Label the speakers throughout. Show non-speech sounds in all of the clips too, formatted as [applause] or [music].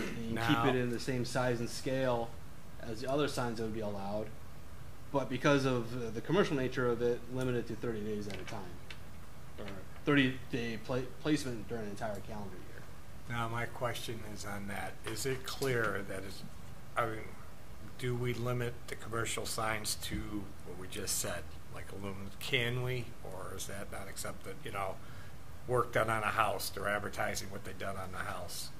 Speaker 1: keep
Speaker 2: No.
Speaker 1: it in the same size and scale as the other signs that would be allowed, but because of uh, the commercial nature of it, limited to 30 days at a time, or 30 day pla- placement during an entire calendar year.
Speaker 2: Now, my question is on that. Is it clear that is, I mean, do we limit the commercial signs to what we just said, like aluminum? Can we, or is that not accepted? You know, work done on a house, they're advertising what they done on the house.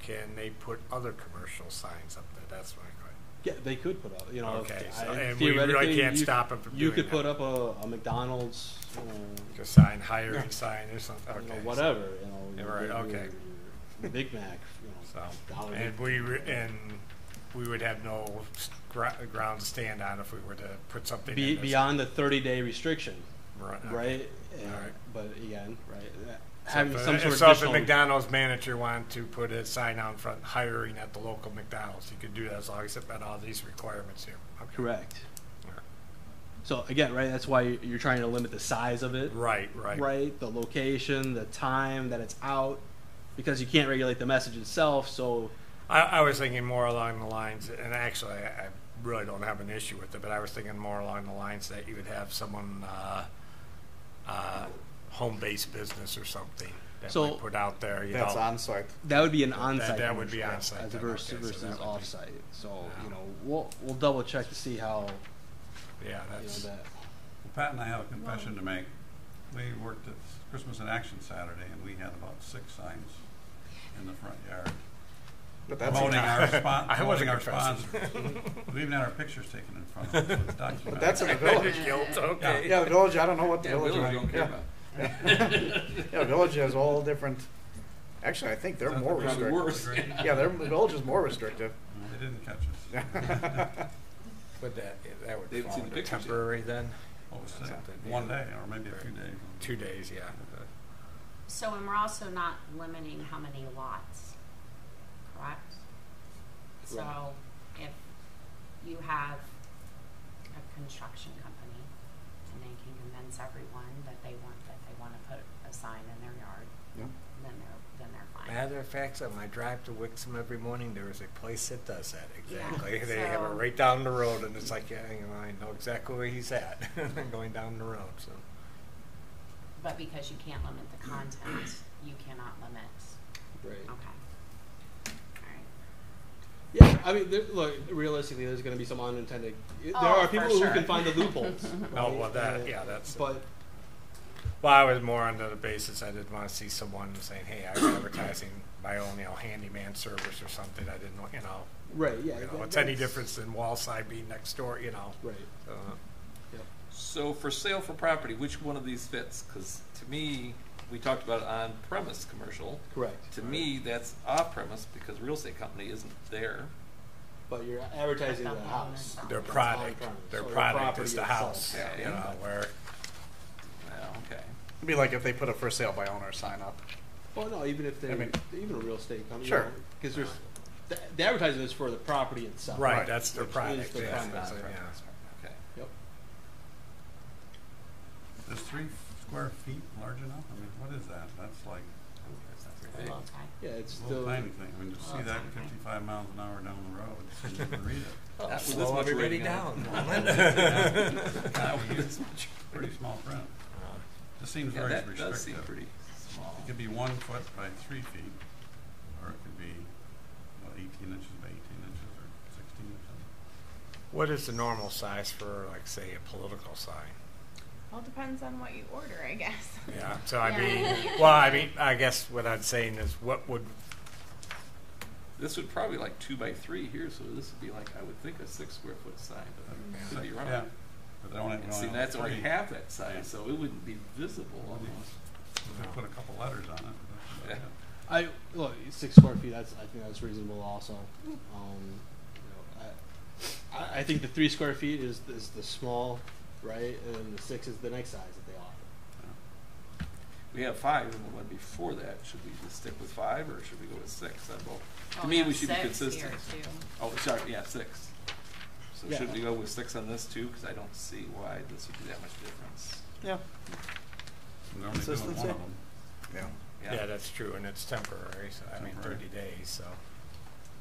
Speaker 2: Can they put other commercial signs up there? That's my question.
Speaker 1: Yeah, they could put up, you know, if-
Speaker 2: Okay,
Speaker 1: I-
Speaker 2: so- and we
Speaker 1: theoretically,
Speaker 2: really can't
Speaker 1: you,
Speaker 2: stop them from
Speaker 1: you
Speaker 2: doing
Speaker 1: could
Speaker 2: that.
Speaker 1: put up a, a McDonald's, you know,
Speaker 2: Like a sign, hiring sign or something?
Speaker 1: you
Speaker 2: Okay.
Speaker 1: know,
Speaker 2: so-
Speaker 1: whatever, you
Speaker 2: Yeah,
Speaker 1: know,
Speaker 2: right,
Speaker 1: your-
Speaker 2: okay.
Speaker 1: your- your Big Mac, you know,
Speaker 2: So,
Speaker 1: Dollar
Speaker 2: and
Speaker 1: Big-
Speaker 2: we, re- and we would have no s- gra- ground to stand on if we were to put something
Speaker 1: Be,
Speaker 2: in this.
Speaker 1: beyond the 30 day restriction,
Speaker 2: Right. okay.
Speaker 1: right? And-
Speaker 2: Alright.
Speaker 1: But again, right? that-
Speaker 2: So
Speaker 1: having
Speaker 2: if a-
Speaker 1: some sort
Speaker 2: So
Speaker 1: of
Speaker 2: if a
Speaker 1: additional,
Speaker 2: McDonald's manager wanted to put a sign out front, hiring at the local McDonald's, he could do that as long as it met all these requirements here. Okay.
Speaker 1: correct.
Speaker 2: All right.
Speaker 1: So again, right? That's why you- you're trying to limit the size of it,
Speaker 2: Right, right.
Speaker 1: right? The location, the time that it's out, because you can't regulate the message itself. So
Speaker 2: I, I was thinking more along the lines, and actually, I, I really don't have an issue with it, but I was thinking more along the lines that you would have someone, uh, uh, home-based business or something that
Speaker 1: So-
Speaker 2: might put out there, you know.
Speaker 3: That's on site.
Speaker 1: That would be an
Speaker 2: That-
Speaker 1: on-site.
Speaker 2: that would be
Speaker 1: commercial,
Speaker 2: on-site
Speaker 1: As
Speaker 2: then,
Speaker 1: versus,
Speaker 2: okay, so
Speaker 1: versus
Speaker 2: that would be-
Speaker 1: off-site. So, you
Speaker 2: Yeah.
Speaker 1: know, we'll, we'll double check to see how,
Speaker 2: Yeah,
Speaker 1: you know,
Speaker 2: that's,
Speaker 1: that,
Speaker 4: Pat and I have a confession to make. We worked at Christmas in Action Saturday, and we had about six signs in the front yard.
Speaker 3: But that's
Speaker 4: Promoting
Speaker 3: a,
Speaker 4: our
Speaker 2: [laughs]
Speaker 4: spon-
Speaker 2: I
Speaker 4: promoting
Speaker 2: wasn't
Speaker 4: our
Speaker 2: confessing.
Speaker 4: sponsors.
Speaker 2: [laughs]
Speaker 4: We even had our pictures taken in front of us. It was
Speaker 3: but that's in the
Speaker 4: documented.
Speaker 3: village.
Speaker 2: Guilt, okay.
Speaker 3: [laughs] Yeah, the village. I don't know what the
Speaker 5: Yeah,
Speaker 3: village.
Speaker 5: Willard
Speaker 3: is.
Speaker 5: don't care
Speaker 3: yeah. [laughs]
Speaker 5: about.
Speaker 3: yeah, village has all different. Actually, I think they're
Speaker 4: That's
Speaker 3: more
Speaker 4: probably
Speaker 3: restrictive.
Speaker 5: worse.
Speaker 4: Agreed.
Speaker 3: Yeah, their village is more restrictive. [laughs]
Speaker 4: They didn't catch us.
Speaker 2: Would that, that
Speaker 5: They
Speaker 2: would fall
Speaker 5: haven't seen the
Speaker 2: under
Speaker 5: pictures yet.
Speaker 2: temporary then?
Speaker 4: [laughs] What was
Speaker 2: That's
Speaker 4: that?
Speaker 2: something,
Speaker 4: One
Speaker 2: yeah.
Speaker 4: day, or maybe a few days.
Speaker 2: Two days, yeah.
Speaker 6: So, and we're also not limiting how many lots, correct? So, if you have a construction company and they can convince everyone that they want, that they wanna put a sign in their yard,
Speaker 3: Yeah.
Speaker 6: then they're, then they're fine.
Speaker 2: Matter of fact, on my drive to Wixom every morning, there is a place that does that
Speaker 6: Yeah, [laughs]
Speaker 2: exactly. They have it
Speaker 6: so-
Speaker 2: right down the road, and it's like, yeah, you know, I know exactly where he's at, [laughs] going down the road, so.
Speaker 6: But because you can't limit the content, you cannot limit, okay. Alright.
Speaker 1: yeah, I mean, there, look, realistically, there's gonna be some unintended, there
Speaker 6: Oh,
Speaker 1: are
Speaker 6: for
Speaker 1: people who
Speaker 6: sure.
Speaker 1: can find the
Speaker 6: [laughs]
Speaker 1: loopholes.
Speaker 2: Oh,
Speaker 1: right?
Speaker 2: well,
Speaker 1: Uh,
Speaker 2: that, yeah, that's.
Speaker 1: But,
Speaker 2: Well, I was more on the basis I didn't want to see someone saying, "Hey, I'm advertising my own, you know, handyman service or something." I didn't, know, you know,
Speaker 1: right, yeah.
Speaker 2: you know,
Speaker 1: that-
Speaker 2: what's any
Speaker 1: that's-
Speaker 2: difference than Wallside being next door, you know?
Speaker 1: Right,
Speaker 2: So,
Speaker 1: yep.
Speaker 5: So for sale for property, which one of these fits? Because to me, we talked about on premise commercial.
Speaker 1: correct.
Speaker 5: To me, that's off premise because real estate company isn't there.
Speaker 1: But you're advertising the
Speaker 6: That's not
Speaker 1: house.
Speaker 6: on
Speaker 2: Their
Speaker 6: It's
Speaker 2: product,
Speaker 1: on-premise,
Speaker 2: their
Speaker 1: so the
Speaker 2: product
Speaker 1: property
Speaker 2: is the
Speaker 1: itself.
Speaker 2: house,
Speaker 5: Yeah,
Speaker 2: you
Speaker 5: yeah.
Speaker 2: know, where
Speaker 5: Well, okay.
Speaker 3: It'd be like if they put a for sale by owner sign up.
Speaker 1: Well, no, even if they,
Speaker 3: I mean-
Speaker 1: even a real estate company.
Speaker 3: Sure.
Speaker 1: Because there's, the, the advertising is for the property itself.
Speaker 2: right, that's their
Speaker 1: Which is
Speaker 2: product.
Speaker 1: the
Speaker 2: yeah,
Speaker 1: product.
Speaker 2: that's it,
Speaker 5: Okay.
Speaker 1: Yep.
Speaker 4: Is three square feet large enough? I mean, what is that? That's like
Speaker 6: a little tight.
Speaker 1: Yeah, it's
Speaker 4: a little
Speaker 1: still.
Speaker 4: tiny thing. I mean, to see that fifty-five miles an hour down the road, it's you can read it.
Speaker 5: Not with this
Speaker 2: Oh, Slow
Speaker 5: much
Speaker 2: everybody
Speaker 5: rating on
Speaker 2: down.
Speaker 5: [laughs] it.
Speaker 2: Norman.
Speaker 4: That would be pretty small print. This seems
Speaker 5: Yeah,
Speaker 4: very
Speaker 5: that
Speaker 4: restrictive.
Speaker 5: does seem pretty small.
Speaker 4: It could be one foot by three feet, or it could be, what, eighteen inches by eighteen inches, or sixteen or something.
Speaker 2: What is the normal size for, like, say, a political sign?
Speaker 7: Well, depends on what you order, I guess.
Speaker 2: Yeah, so I
Speaker 6: Yeah.
Speaker 2: mean, well, I mean, I guess what I'm saying is, what would
Speaker 5: This would probably like two by three here, so this would be like, I would think a six square foot sign, but could be wrong.
Speaker 4: Uh, Yeah, but they only,
Speaker 5: And
Speaker 4: we
Speaker 5: see,
Speaker 4: only have
Speaker 5: that's only
Speaker 4: three.
Speaker 5: half that size,
Speaker 4: Yeah.
Speaker 5: so it wouldn't be visible almost.
Speaker 4: If they put a couple letters on it. that's about
Speaker 5: Yeah.
Speaker 4: it.
Speaker 1: I look six square feet. That's I think that's reasonable. Also, um, you know, I, I, I think the three square feet is is the small, right, and the six is the next size that they offer.
Speaker 5: We have five, and the one before that, should we just stick with five, or should we go with six on both?
Speaker 6: Well,
Speaker 5: To me,
Speaker 6: have
Speaker 5: we should be
Speaker 6: Oh, six here,
Speaker 5: consistent.
Speaker 6: too.
Speaker 5: Oh, sorry, yeah, six. So
Speaker 1: Yeah.
Speaker 5: should we go with six on this too? Because I don't see why this would be that much difference.
Speaker 3: Yeah.
Speaker 4: We're only doing one of
Speaker 3: Consistency?
Speaker 4: them.
Speaker 2: Yeah, that's true, and it's temporary, so I mean,
Speaker 4: Temporary.
Speaker 2: thirty days, so.